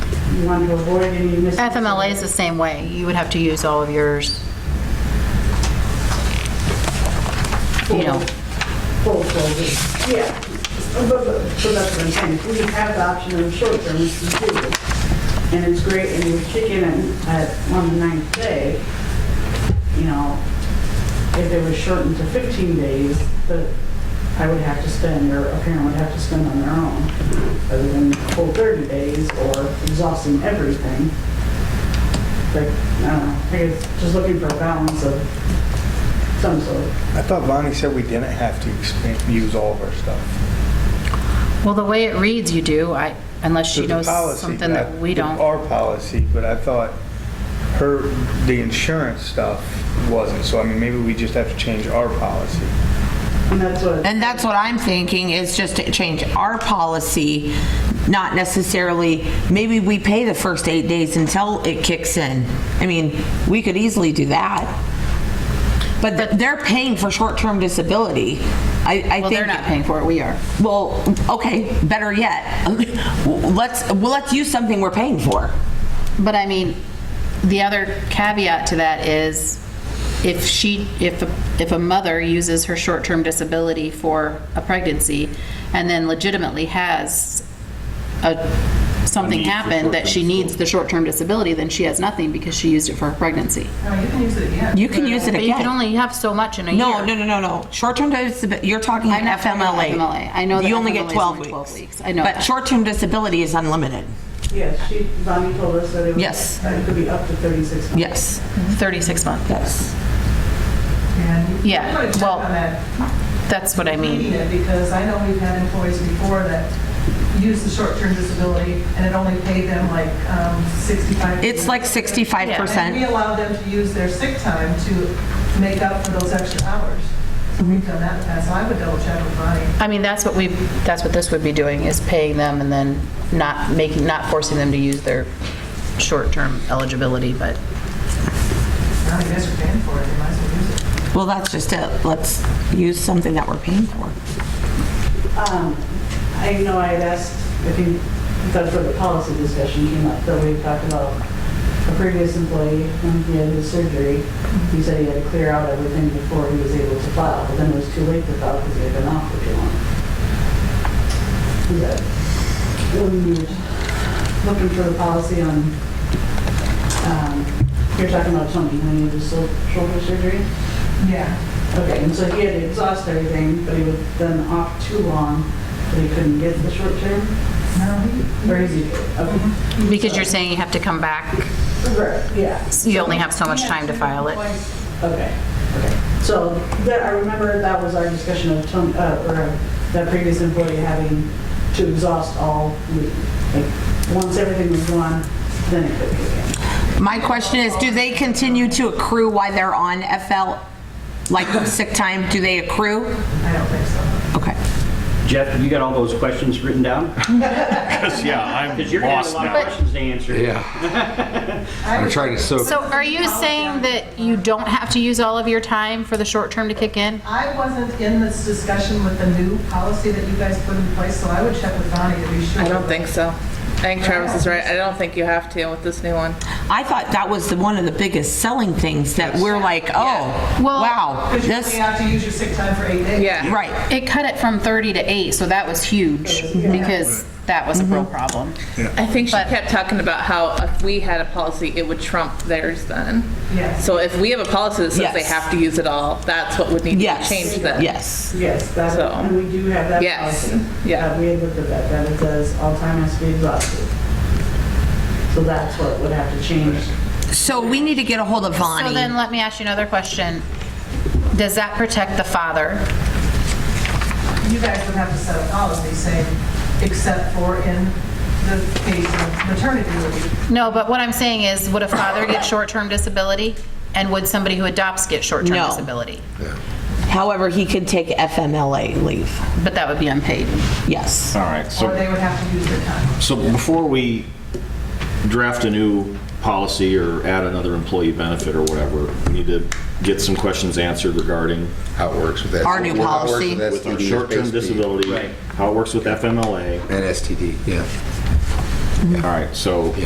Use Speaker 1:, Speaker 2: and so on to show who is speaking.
Speaker 1: you want to avoid any mis...
Speaker 2: FMLA is the same way. You would have to use all of yours. You know,
Speaker 1: Full folders, yeah. But, but, so that's what I'm saying, if we have the option of short term, we can do it. And it's great, and we kick in at, on the ninth day, you know, if it was shortened to 15 days, that I would have to spend, or a parent would have to spend on their own, other than the full 30 days or exhausting everything. But, I don't know, I guess just looking for a balance of some sort.
Speaker 3: I thought Bonnie said we didn't have to expand, use all of our stuff.
Speaker 2: well, the way it reads, you do, I, unless she
Speaker 3: There's a
Speaker 2: knows
Speaker 3: policy,
Speaker 2: something
Speaker 3: but
Speaker 2: that
Speaker 3: I-
Speaker 2: we don't.
Speaker 3: Our policy, but I thought her, the insurance stuff wasn't, so I mean, maybe we just have to change our policy.
Speaker 1: And that's what,
Speaker 4: And that's what I'm thinking, is just to change our policy, not necessarily, maybe we pay the first eight days until it kicks in. I mean, we could easily do that. But th- they're paying for short-term disability. I, I think.
Speaker 2: Well, they're not paying for it, we are.
Speaker 4: Well, okay, better yet, let's, well, let's use something we're paying for.
Speaker 2: But I mean, the other caveat to that is if she, if, a- if a mother uses her short-term disability for a pregnancy and then legitimately has a, something happen that she needs the short-term disability, then she has nothing because she used it for her pregnancy.
Speaker 4: You can use it
Speaker 2: But you can
Speaker 4: again.
Speaker 2: only have so much in a year.
Speaker 4: No, no, no, no, no. Short-term disability, you're talking
Speaker 2: I'm not talking about
Speaker 4: FMLA.
Speaker 2: FMLA. I know that
Speaker 4: You only
Speaker 2: FMLA
Speaker 4: get
Speaker 2: is
Speaker 4: 12
Speaker 2: only
Speaker 4: weeks.
Speaker 2: 12 weeks. I know
Speaker 4: But
Speaker 2: that.
Speaker 4: short-term disability is unlimited.
Speaker 1: yes, she, Bonnie told us that it was...
Speaker 4: Yes.
Speaker 1: That it could be up to 36 months.
Speaker 4: Yes,
Speaker 2: 36 months.
Speaker 4: yes.
Speaker 5: And
Speaker 2: Yeah,
Speaker 5: I'm gonna check
Speaker 2: well,
Speaker 5: on that,
Speaker 2: That's what I
Speaker 5: reading
Speaker 2: mean.
Speaker 5: it, because I know we've had employees before that used the short-term disability, and it only paid them like um, 65.
Speaker 4: It's like
Speaker 5: And we
Speaker 4: 65%.
Speaker 5: allowed them to use their sick time to make up for those extra hours. So we've done that in the past, so I would double check with Bonnie.
Speaker 2: I mean, that's what we, that's what this would be doing, is paying them and then not making, not forcing them to use their short-term eligibility, but
Speaker 5: Now you guys are paying for it, you might as well use it.
Speaker 4: Well, that's just it. Let's use something that we're paying for.
Speaker 1: Um, I know I had asked, I think, that's where the policy discussion came up, that we talked about a previous employee, when he had his surgery, he said he had to clear out everything before he was able to file, but then it was too late to file because he had been off for too long. Is that,
Speaker 5: Um,
Speaker 1: when you were looking for the policy on, um, you're talking about Tony, when he had his shou- shoulder surgery?
Speaker 5: Yeah.
Speaker 1: Okay, and so he had to exhaust everything, but he was then off too long, that he couldn't get the short term?
Speaker 5: No, he-
Speaker 1: Or is he? Okay.
Speaker 2: Because you're saying you have to come back,
Speaker 1: Right, yeah,
Speaker 2: you only have so much time to file it.
Speaker 1: okay, okay. So that, I remember that was our discussion of Tony, uh, or uh, that previous employee having to exhaust all, leave. like, once everything was gone, then it could kick
Speaker 4: My question is, do they continue to accrue while they're on FL, like sick time? Do they accrue?
Speaker 5: I don't think so.
Speaker 4: Okay.
Speaker 6: Jeff, have you got all those questions written down?
Speaker 7: Yeah, I'm
Speaker 6: Because you're going to
Speaker 7: lost
Speaker 6: have a lot of
Speaker 7: now.
Speaker 6: questions to answer.
Speaker 7: Yeah. I'm trying to soak.
Speaker 2: So are you saying that you don't have to use all of your time for the short-term to kick in?
Speaker 5: I wasn't in this discussion with the new policy that you guys put in place, so I would check with Bonnie to be sure.
Speaker 8: I don't think so. I think Travis is right. I don't think you have to with this new one.
Speaker 4: I thought that was the, one of the biggest selling things that we're like, oh,
Speaker 2: Well-
Speaker 4: wow,
Speaker 5: Because you
Speaker 4: this,
Speaker 5: only have to use your sick time for eight days.
Speaker 8: Yeah.
Speaker 4: right.
Speaker 2: It cut it from 30 to 8, so that was huge, because that was a real problem.
Speaker 8: I think she
Speaker 2: But-
Speaker 8: kept talking about how if we had a policy, it would trump theirs then.
Speaker 5: Yes.
Speaker 8: So if we have a policy that says they
Speaker 4: Yes.
Speaker 8: have to use it all, that's what would need to be
Speaker 4: Yes.
Speaker 8: changed then.
Speaker 4: Yes.
Speaker 1: in. Yes, that,
Speaker 8: So-
Speaker 1: and we do have that
Speaker 8: Yes,
Speaker 1: policy.
Speaker 8: yeah.
Speaker 1: That we had looked at that, that it says all time has to be exhausted. So that's what would have to change.
Speaker 4: So we need to get a hold of
Speaker 2: So
Speaker 4: Bonnie.
Speaker 2: then, let me ask you another question. Does that protect the father?
Speaker 5: You guys would have to set a policy saying, except for in the case of maternity leave.
Speaker 2: No, but what I'm saying is, would a father get short-term disability? And would somebody who adopts get short-term
Speaker 4: No.
Speaker 2: disability?
Speaker 4: However, he could take FMLA leave.
Speaker 2: But that would be unpaid.
Speaker 4: Yes.
Speaker 7: All right,
Speaker 5: Or
Speaker 7: so,
Speaker 5: they would have to use their time.
Speaker 7: so before we draft a new policy or add another employee benefit or whatever, we need to get some questions answered regarding
Speaker 9: how it works with that.
Speaker 4: Our
Speaker 9: how
Speaker 4: new
Speaker 9: it works
Speaker 4: policy.
Speaker 9: with
Speaker 7: with our
Speaker 9: STD,
Speaker 7: short-term
Speaker 9: basically,
Speaker 7: disability, how it works with FMLA.
Speaker 9: And STD, yeah.
Speaker 4: Mm-hmm.
Speaker 7: All right, so